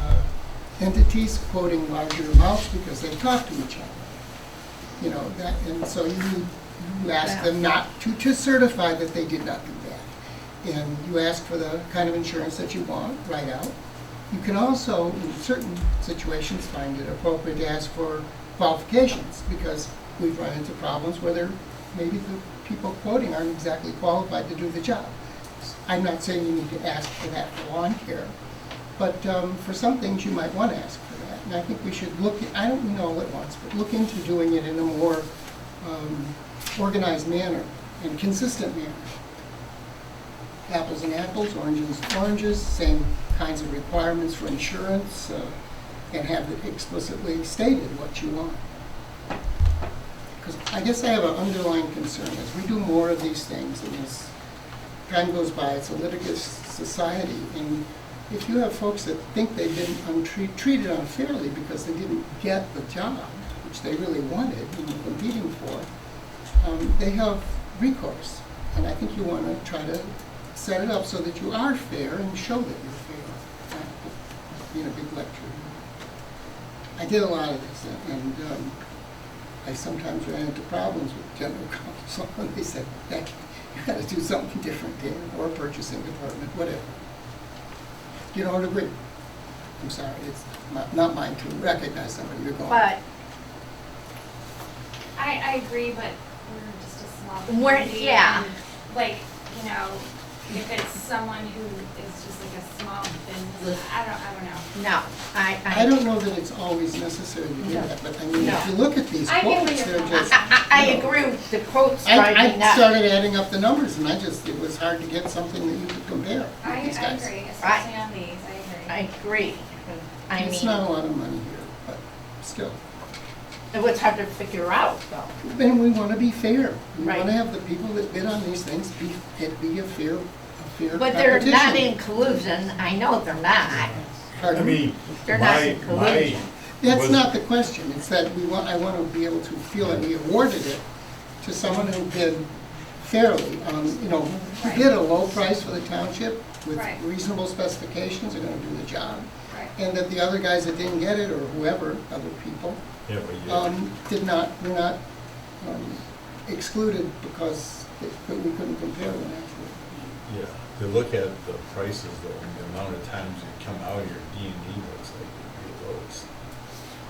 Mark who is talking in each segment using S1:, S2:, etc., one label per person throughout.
S1: uh, entities quoting larger amounts because they talk to each other. You know, that, and so you, you ask them not to, to certify that they did not do that. And you ask for the kind of insurance that you want, right out. You can also, in certain situations, find it appropriate to ask for qualifications, because we've run into problems where there, maybe the people quoting aren't exactly qualified to do the job. I'm not saying you need to ask for that for lawn care, but um, for some things, you might want to ask for that. And I think we should look, I don't know all at once, but look into doing it in a more um, organized manner and consistent manner. Apples and apples, oranges and oranges, same kinds of requirements for insurance, uh, and have it explicitly stated what you want. Because I guess I have an underlying concern, as we do more of these things, and as time goes by, it's a litigious society, and if you have folks that think they've been untre- treated unfairly because they didn't get the job, which they really wanted and were competing for, um, they have recourse. And I think you want to try to set it up so that you are fair and show that you're fair, not being a big lecture. I did a lot of this, and um, I sometimes ran into problems with general counsel, and they said, "Becky, you got to do something different here, or purchasing department, whatever. You don't agree. I'm sorry, it's not- not mine to recognize somebody you're going.
S2: But
S3: I, I agree, but we're just a small
S2: We're-
S3: community.
S2: yeah.
S3: and, Like, you know, if it's someone who is just like a small business, I don't, I don't know.
S2: no, I, I.
S1: I don't know that it's always necessary to do that, but I mean, if you look at these
S3: I get where
S1: quotes,
S3: you're
S1: they're
S3: coming
S1: just.
S2: I, I I
S1: you know,
S2: agree with the quotes
S1: I,
S2: driving
S1: I
S2: that.
S1: started adding up the numbers and I just, it was hard to get something that you could compare
S3: I,
S1: with these
S3: I
S1: guys.
S3: agree, especially on these, I
S2: I
S3: agree.
S2: agree. I
S1: It's not
S2: mean,
S1: a lot of money here, but still.
S2: it was hard to figure out though.
S1: And we want to be fair. We want
S2: Right.
S1: to have the people that bid on these things be, it be a fair, a fair competition.
S2: But they're not in collusion, I know they're not.
S1: Pardon?
S4: I mean,
S2: They're not
S4: my,
S2: in
S4: my,
S2: collusion.
S1: That's
S4: was-
S1: not the question, it's that we want, I want to be able to feel that we awarded it to someone who bid fairly, um, you know, who
S3: Right.
S1: bid a low price for the township with
S3: Right.
S1: reasonable specifications, are gonna do the job,
S3: Right.
S1: and that the other guys that didn't get it, or whoever, other people,
S4: yeah, but yeah,
S1: um, did not, were not, um, excluded because it- that we couldn't compare them afterward.
S4: yeah, to look at the prices though, the amount of times you come out here, D and D looks like the lowest.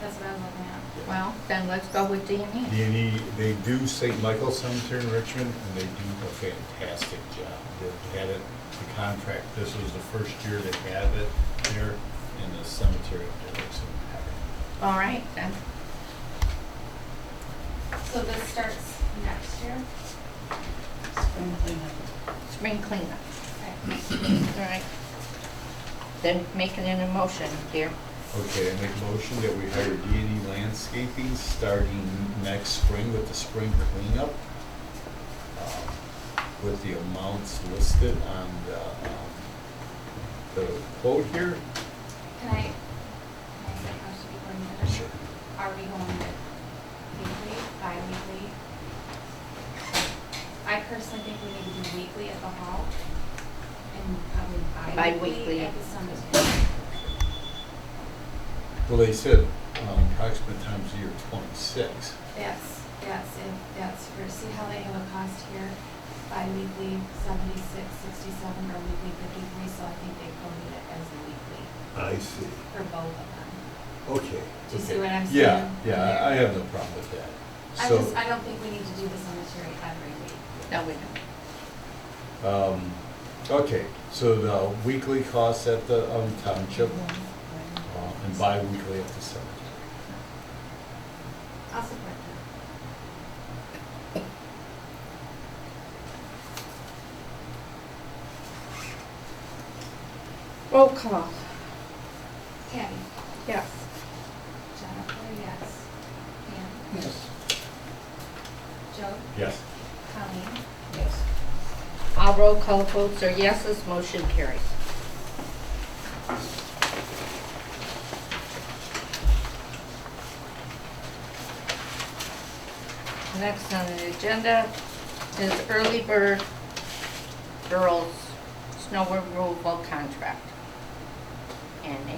S3: That's what I was looking at.
S4: Yeah.
S2: Well, then let's go with D and E.
S4: D and E, they do St. Michael Cemetery in Richmond, and they do a fantastic job. They've had it, the contract, this was the first year they had it there in the cemetery up there, looks impeccable.
S2: All right, then.
S3: So this starts next year?
S2: Spring cleanup,
S3: Okay.
S2: all right. Then making an emotion here.
S4: Okay, I make a motion that we hire D and E Landscaping starting next spring with the spring cleanup. um, With the amounts listed on the, um, the quote here.
S3: Can I, can I say how should we go into this? Are we going with weekly, bi-weekly? I personally think we need to do weekly at the hall and probably
S2: Bi-weekly.
S3: bi-weekly at the cemetery.
S4: Well, they said, um, approximate times a year twenty-six.
S3: That's, that's, it. that's for, see how they have a cost here, bi-weekly seventy-six, sixty-seven, or weekly fifty-three, so I think they quoted it as a weekly
S4: I see,
S3: for both of them.
S4: okay.
S3: Do you see
S4: okay.
S3: what I'm
S4: Yeah,
S3: saying?
S4: yeah, I- I have no problem with that.
S3: I
S4: So,
S3: just, I don't think we need to do the cemetery every week.
S2: No, we don't.
S4: um, okay, so the weekly costs at the, um, township,
S3: Mhm.
S4: uh, and bi-weekly at the cemetery.
S3: I'll support that.
S2: Roll call.
S3: Kathy?
S2: Yes.
S3: Jennifer, yes. Pam?
S1: Yes.
S3: Joe?
S4: Yes.
S3: Colleen?
S2: Yes. All roll call votes are yeses, motion carries. Next on the agenda is early bird girls snow removal contract. And